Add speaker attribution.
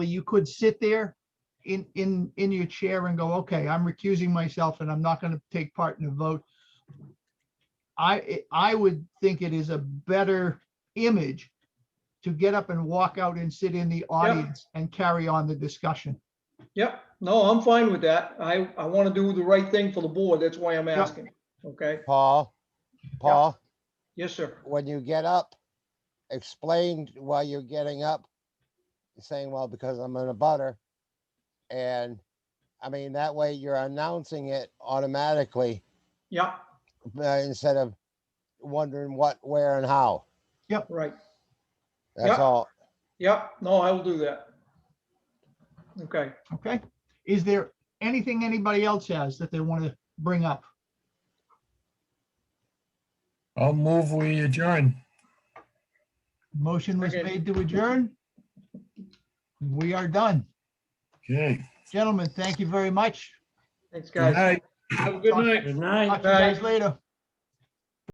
Speaker 1: you could sit there in, in, in your chair and go, okay, I'm recusing myself and I'm not going to take part in the vote. I, I would think it is a better image to get up and walk out and sit in the audience and carry on the discussion.
Speaker 2: Yep, no, I'm fine with that. I, I want to do the right thing for the board. That's why I'm
Speaker 1: Yep.
Speaker 2: asking. Okay,
Speaker 3: Paul, Paul,
Speaker 2: yes, sir.
Speaker 3: when you get up, explain why you're getting up. Saying, well, because I'm in a butter. And I mean, that way you're announcing it automatically
Speaker 2: Yeah,
Speaker 3: uh, instead of wondering what, where and how.
Speaker 2: right.
Speaker 3: That's
Speaker 2: Yep.
Speaker 3: all.
Speaker 2: Yep, no, I will do that. Okay,
Speaker 1: Okay? Is there anything anybody else has that they want to bring up?
Speaker 4: I'll move, we adjourn.
Speaker 1: Motion was
Speaker 2: Second.
Speaker 1: made to adjourn. We are done.
Speaker 4: Okay.
Speaker 1: Gentlemen, thank you very much.
Speaker 2: thanks, guys.
Speaker 4: Good night.
Speaker 5: Have a good night.
Speaker 4: Good
Speaker 1: Talk
Speaker 4: night.
Speaker 1: to you guys
Speaker 2: Bye.
Speaker 1: later.